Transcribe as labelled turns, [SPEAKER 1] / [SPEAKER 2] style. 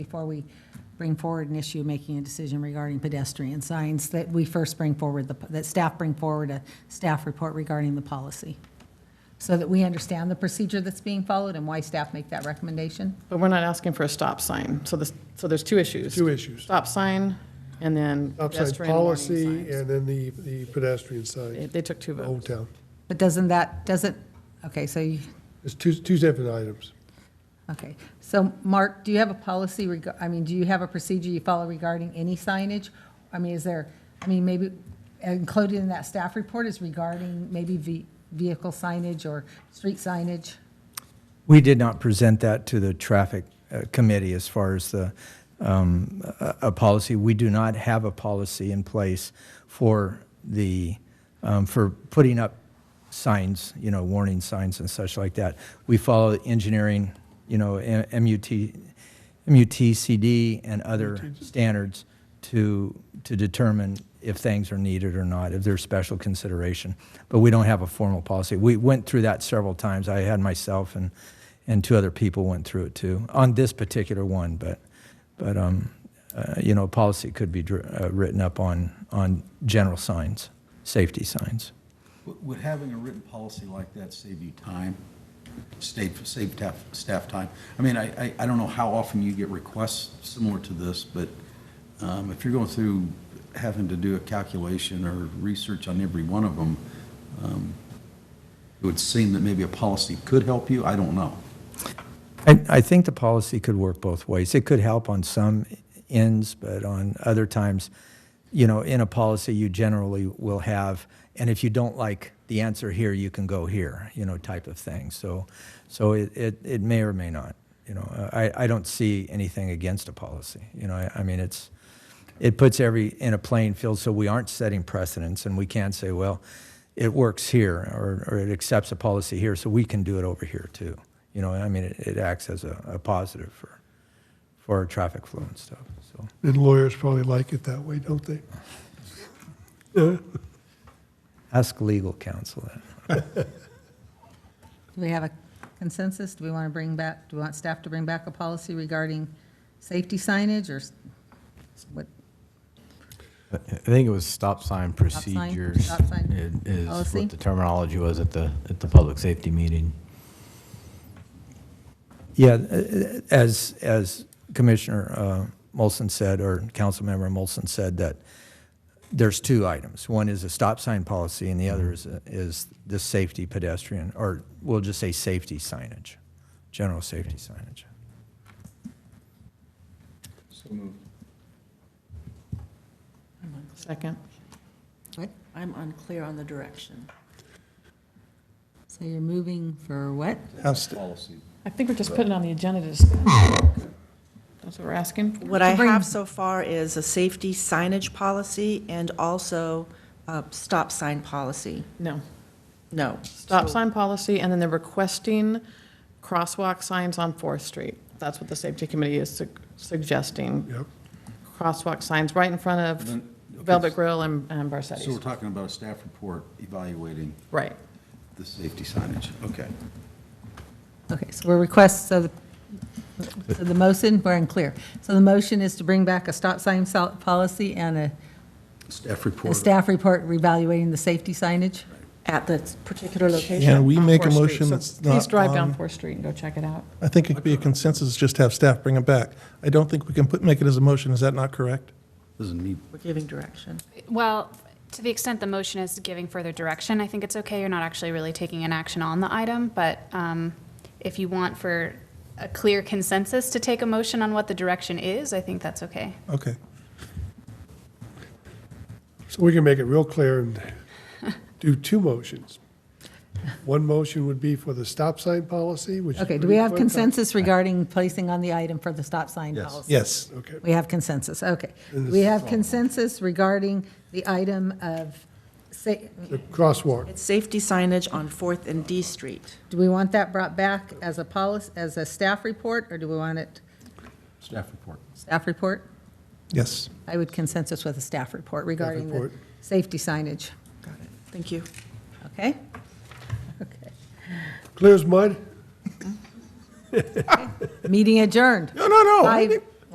[SPEAKER 1] before we bring forward an issue, making a decision regarding pedestrian signs, that we first bring forward, the that staff bring forward a staff report regarding the policy, so that we understand the procedure that's being followed and why staff make that recommendation.
[SPEAKER 2] But we're not asking for a stop sign, so this, so there's two issues.
[SPEAKER 3] Two issues.
[SPEAKER 2] Stop sign and then
[SPEAKER 3] Stop sign
[SPEAKER 2] pedestrian warning
[SPEAKER 3] policy
[SPEAKER 2] signs.
[SPEAKER 3] and then the, the pedestrian
[SPEAKER 2] They-
[SPEAKER 3] sign,
[SPEAKER 2] They took two
[SPEAKER 3] Old
[SPEAKER 2] votes.
[SPEAKER 3] Town.
[SPEAKER 1] But doesn't that, doesn't, okay, so, you-
[SPEAKER 3] It's two, two separate items.
[SPEAKER 1] okay. So, Mark, do you have a policy, reg- I mean, do you have a procedure you follow regarding any signage? I mean, is there, I mean, maybe included in that staff report is regarding maybe ve- vehicle signage or street signage?
[SPEAKER 4] We did not present that to the traffic uh, committee as far as the, um, a, a policy. We do not have a policy in place for the, um, for putting up signs, you know, warning signs and such like that. We follow engineering, you know, M- MUT, MUTCD and other standards to, to determine if things are needed or not, if there's special consideration. But we don't have a formal policy. We went through that several times. I had myself and, and two other people went through it too, on this particular one, but, but, um, uh, you know, a policy could be dr- uh, written up on, on general signs, safety signs.
[SPEAKER 5] Would would having a written policy like that save you time? Save, save staff, staff time? I mean, I, I, I don't know how often you get requests similar to this, but um, if you're going through having to do a calculation or research on every one of them, um, it would seem that maybe a policy could help you. I don't know.
[SPEAKER 4] I, I think the policy could work both ways. It could help on some ends, but on other times, you know, in a policy, you generally will have, and if you don't like the answer here, you can go here, you know, type of thing. So, so it, it, it may or may not, you know. I, I don't see anything against a policy, you know. I, I mean, it's, it puts every in a playing field so we aren't setting precedents and we can't say, well, it works here or, or it accepts a policy here, so we can do it over here too. You know, I mean, it, it acts as a, a positive for, for our traffic flow and stuff. So,
[SPEAKER 3] And lawyers probably like it that way, don't they?
[SPEAKER 4] ask legal counsel that.
[SPEAKER 1] Do we have a consensus? Do we want to bring back, do we want staff to bring back a policy regarding safety signage or s- what?
[SPEAKER 6] I think it was stop sign
[SPEAKER 1] sign,
[SPEAKER 6] procedures.
[SPEAKER 1] stop sign Oh,
[SPEAKER 6] i- Is
[SPEAKER 1] policy.
[SPEAKER 6] what the terminology was at the, at the public safety meeting.
[SPEAKER 4] Yeah, uh, as, as Commissioner uh, Molson said, or Councilmember Molson said, that there's two items. One is a stop sign policy, and the other is, is the safety pedestrian, or we'll just say safety signage, general safety signage.
[SPEAKER 3] Oh.
[SPEAKER 2] Second.
[SPEAKER 7] I'm unclear on the direction.
[SPEAKER 1] So you're moving for what?
[SPEAKER 5] Policy.
[SPEAKER 2] I think we're just putting on the agenda to discuss. That's what we're asking for.
[SPEAKER 7] What I
[SPEAKER 1] bring-
[SPEAKER 7] have so far is a safety signage policy and also a stop sign policy.
[SPEAKER 2] No.
[SPEAKER 7] No.
[SPEAKER 2] Stop
[SPEAKER 7] So-
[SPEAKER 2] sign policy, and then they're requesting crosswalk signs on Fourth Street. That's what the safety committee is su- suggesting,
[SPEAKER 3] Yep.
[SPEAKER 2] crosswalk signs right in front of
[SPEAKER 5] Then- okay,
[SPEAKER 2] Velvet Grill and and Barsetti's.
[SPEAKER 5] So we're talking about a staff report evaluating
[SPEAKER 2] Right.
[SPEAKER 5] the safety signage. Okay.
[SPEAKER 1] Okay, so we're request, so the, so the motion, we're unclear. So the motion is to bring back a stop sign sol- policy and a-
[SPEAKER 5] Staff
[SPEAKER 1] a
[SPEAKER 5] report.
[SPEAKER 1] staff report reevaluating the safety signage?
[SPEAKER 7] At the particular location.
[SPEAKER 8] Can we
[SPEAKER 2] on
[SPEAKER 8] make a
[SPEAKER 2] Fourth Street.
[SPEAKER 8] motion
[SPEAKER 2] So
[SPEAKER 8] that's not
[SPEAKER 2] Please drive down
[SPEAKER 8] on-
[SPEAKER 2] Fourth Street and go check it out.
[SPEAKER 8] I think it could be a consensus, just have staff bring them back. I don't think we can put, make it as a motion, is that not correct?
[SPEAKER 5] Doesn't need
[SPEAKER 7] We're giving direction.
[SPEAKER 9] Well, to the extent the motion is giving further direction, I think it's okay. You're not actually really taking an action on the item, but um, if you want for a clear consensus to take a motion on what the direction is, I think that's okay.
[SPEAKER 8] Okay.
[SPEAKER 3] So we can make it real clear and do two motions. One motion would be for the stop sign policy, which. is
[SPEAKER 1] Okay, do
[SPEAKER 3] pretty
[SPEAKER 1] we have
[SPEAKER 3] quick.
[SPEAKER 1] consensus regarding placing on the item for the stop sign
[SPEAKER 5] Yes.
[SPEAKER 1] policy?
[SPEAKER 8] Yes.
[SPEAKER 3] Okay.
[SPEAKER 1] We have consensus, okay.
[SPEAKER 3] And this
[SPEAKER 1] We
[SPEAKER 3] is
[SPEAKER 1] have consensus regarding the item of, sa-
[SPEAKER 3] The crosswalk.
[SPEAKER 7] It's safety signage on Fourth and D Street.
[SPEAKER 1] do we want that brought back as a policy, as a staff report, or do we want it,
[SPEAKER 5] staff report.
[SPEAKER 1] staff report?
[SPEAKER 8] Yes.
[SPEAKER 1] I would consensus with a staff report regarding the
[SPEAKER 3] report.
[SPEAKER 1] safety signage,
[SPEAKER 7] Thank you.
[SPEAKER 1] okay? Okay.
[SPEAKER 3] Clear as mud?
[SPEAKER 1] Meeting adjourned.
[SPEAKER 8] No, no, no. I
[SPEAKER 1] Five
[SPEAKER 8] think-